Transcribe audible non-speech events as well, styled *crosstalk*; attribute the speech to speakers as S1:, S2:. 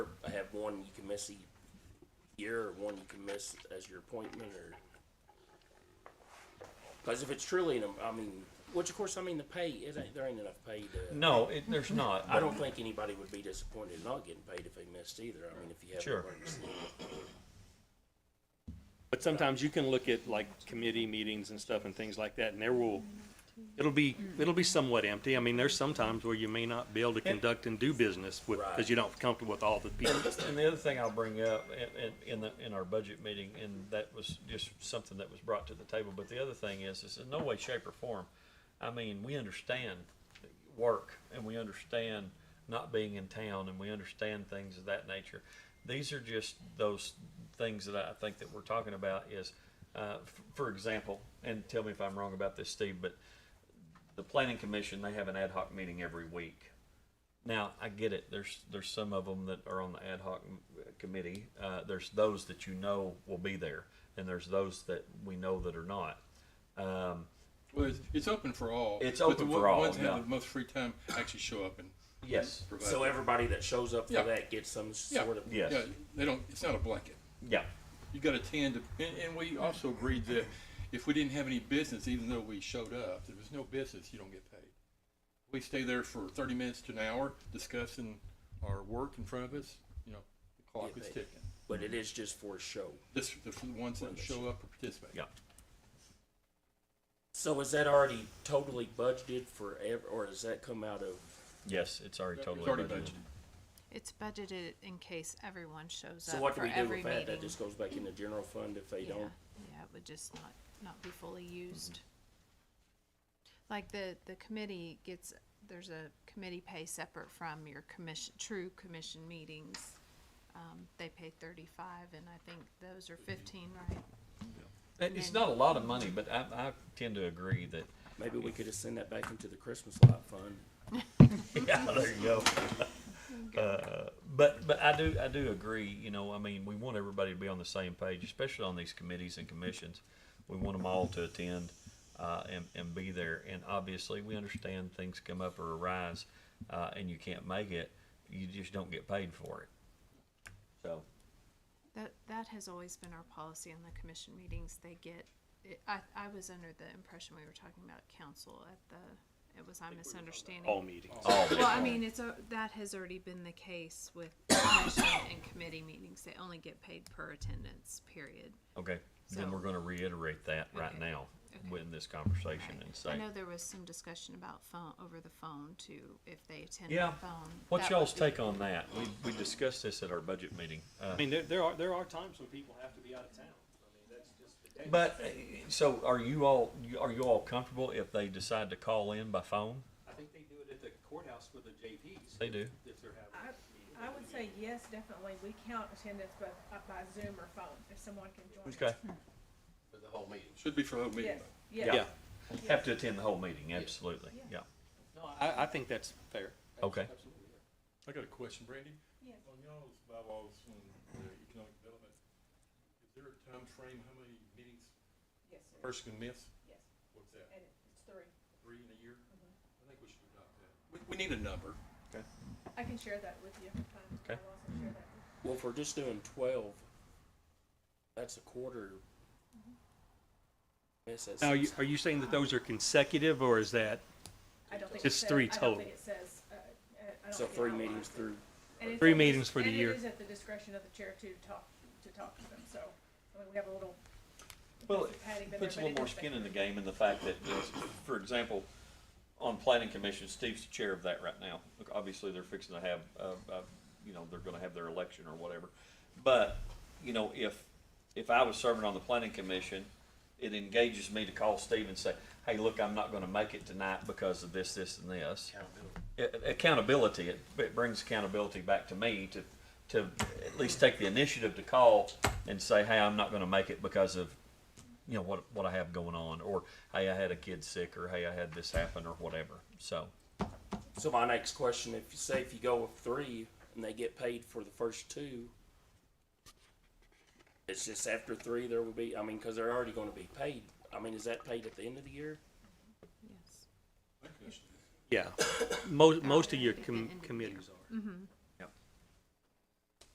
S1: I have one you can miss a year, or one you can miss as your appointment, or because if it's truly, an I mean, which of course, I mean, the pay, it ain't, there ain't enough pay to.
S2: No, it, there's not.
S1: I don't think anybody would be disappointed in not getting paid if they missed either. I mean, if you have. an
S2: Sure.
S1: emergency.
S3: But sometimes you can look at like committee meetings and stuff and things like that, and there will, it'll be, it'll be somewhat empty. I mean, there's some times where you may not be able to conduct and do business with, because you don't comfortable with all the people.
S2: And the other thing I'll bring up in, in, in the, in our budget meeting, and that was just something that was brought to the table, but the other thing is, is in no way, shape or form, I mean, we understand work and we understand not being in town and we understand things of that nature. These are just those things that I think that we're talking about is, uh, f- for example, and tell me if I'm wrong about this, Steve, but the planning commission, they have an ad hoc meeting every week. Now, I get it. There's there's some of them that are on the ad hoc m- committee. Uh, there's those that you know will be there, and there's those that we know that are not. Um,
S4: Well, it's, it's open for all.
S2: It's
S4: but
S2: open
S4: the
S2: for
S4: one-
S2: all,
S4: Ones that
S2: yeah.
S4: have the most free time actually show up and
S2: yes.
S4: provide.
S1: So everybody that shows up
S4: Yeah.
S1: for that gets some
S4: yeah,
S1: sort of.
S2: Yeah. Yes.
S4: yeah, they don't. It's not a blanket.
S2: Yeah.
S4: You got to tend to, and, and we also agreed that if we didn't have any business, even though we showed up, if there's no business, you don't get paid. We stay there for 30 minutes to an hour discussing our work in front of us. You know, the clock
S1: Get
S4: is
S1: paid.
S4: ticking.
S1: But it is just for show.
S4: This the f- ones that show up or participate.
S2: Yeah.
S1: So is that already totally budgeted for ev- or does that come out of?
S2: Yes. It's already
S4: It's
S2: totally
S4: already
S2: budgeted.
S4: budgeted.
S5: It's budgeted in case everyone shows
S1: So
S5: up
S1: what do
S5: for
S1: we do
S5: every
S1: with that? That
S5: meeting.
S1: just goes back in the general fund if they
S5: Yeah,
S1: don't?
S5: yeah, it would just not, not be fully
S1: Mm-hmm.
S5: used. Like the, the committee gets, there's a committee pay separate from your commission, true commission meetings. Um, they pay thirty-five and I think those
S1: Mm-hmm.
S5: are fifteen, right?
S2: It- It's not a lot of money, but I, I tend to agree that.
S1: Maybe we could have sent that back into the Christmas lot fund.
S2: *laughs* Yeah, there you go. Uh, But, but I do, I do agree, you know, I mean, we want everybody to be on the same page, especially on these committees and commissions. We want them all to attend, uh, and, and be there, and obviously, we understand things come up or arise, uh, and you can't make it, you just don't get paid for it. So,
S5: That, that has always been our policy on the commission meetings, they get, it, I, I was under the impression we were talking about council at the, it was I misunderstanding.
S3: All meetings.
S5: Well, I mean, it's, a- that has already been the case with commission and committee meetings. They only get paid per attendance, period.
S2: okay, then
S5: So-
S2: we're gonna reiterate that right
S5: Okay.
S2: now,
S5: Okay.
S2: in this conversation, and
S5: I
S2: say,
S5: know there was some discussion about phone, over the phone too, if they attend
S2: Yeah.
S5: by phone.
S2: what's
S5: That would
S2: y'all's
S5: be-
S2: take on that? We, we discussed this at our budget meeting, uh,
S3: I mean, there, there are, there are times when people have to be out of town. I mean, that's just the case.
S2: But uh, so are you all are you all comfortable if they decide to call in by phone?
S3: I think they do it at the courthouse with the JPs.
S2: They do.
S3: If they're having.
S6: I, I would say yes, definitely. We count attendance by, uh, by Zoom or phone if someone can join.
S2: Okay.
S4: Should be for the whole meeting.
S6: Yes,
S4: though.
S6: yes.
S2: Have to attend the whole meeting, absolutely. Yeah.
S3: No, I, I think that's fair.
S2: Okay.
S4: I got a question, Brandy.
S6: Yes.
S4: On y'all's bylaws on the economic development, is there a time frame how many meetings
S6: Yes,
S4: a
S6: sir.
S4: person can miss?
S6: yes.
S4: What's that,
S6: And it's three.
S4: three in a year? I think we should adopt that. Mm-hmm. We, we need a number.
S6: I can share that with you. if I'm-
S2: Okay.
S6: I'll also share that.
S1: Well, if we're just doing twelve, that's a quarter. Yes, that's-
S3: Now, you, are you saying that those are consecutive, or is that
S6: I don't think it
S3: It's
S6: says-
S3: three
S6: I don't think it says, uh, uh, I don't
S1: So
S6: think it
S1: three
S6: outlines
S1: meetings
S6: it.
S1: through,
S6: And it's-
S3: Three meetings for the year.
S6: And it is at the discretion of the chair to talk, to talk to them, so, I mean, we have a little.
S2: Well,
S6: Patty,
S2: it
S6: but
S2: puts a
S6: everybody
S2: little more
S6: does that.
S2: skin in the game in the fact that, it's- for example, on planning commission, Steve's the chair of that right now. Look, obviously, they're fixing to have, uh, uh, you know, they're gonna have their election or whatever. But, you know, if, if I was serving on the planning commission, it engages me to call Steve and say, hey, look, I'm not gonna make it tonight because of this, this, and this. Accountability. Accountability, it, it brings accountability back to me to, to at least take the initiative to call and say, hey, I'm not gonna make it because of you know what what I have going on, or hey, I had a kid sick, or hey, I had this happen, or whatever. So
S1: so my next question, if you say if you go with three and they get paid for the first two, it's just after three, there will be, I mean, cause they're already gonna be paid. I mean, is that paid at the end of the year?
S5: Yes.
S3: Yeah, most, most of your com- committees are.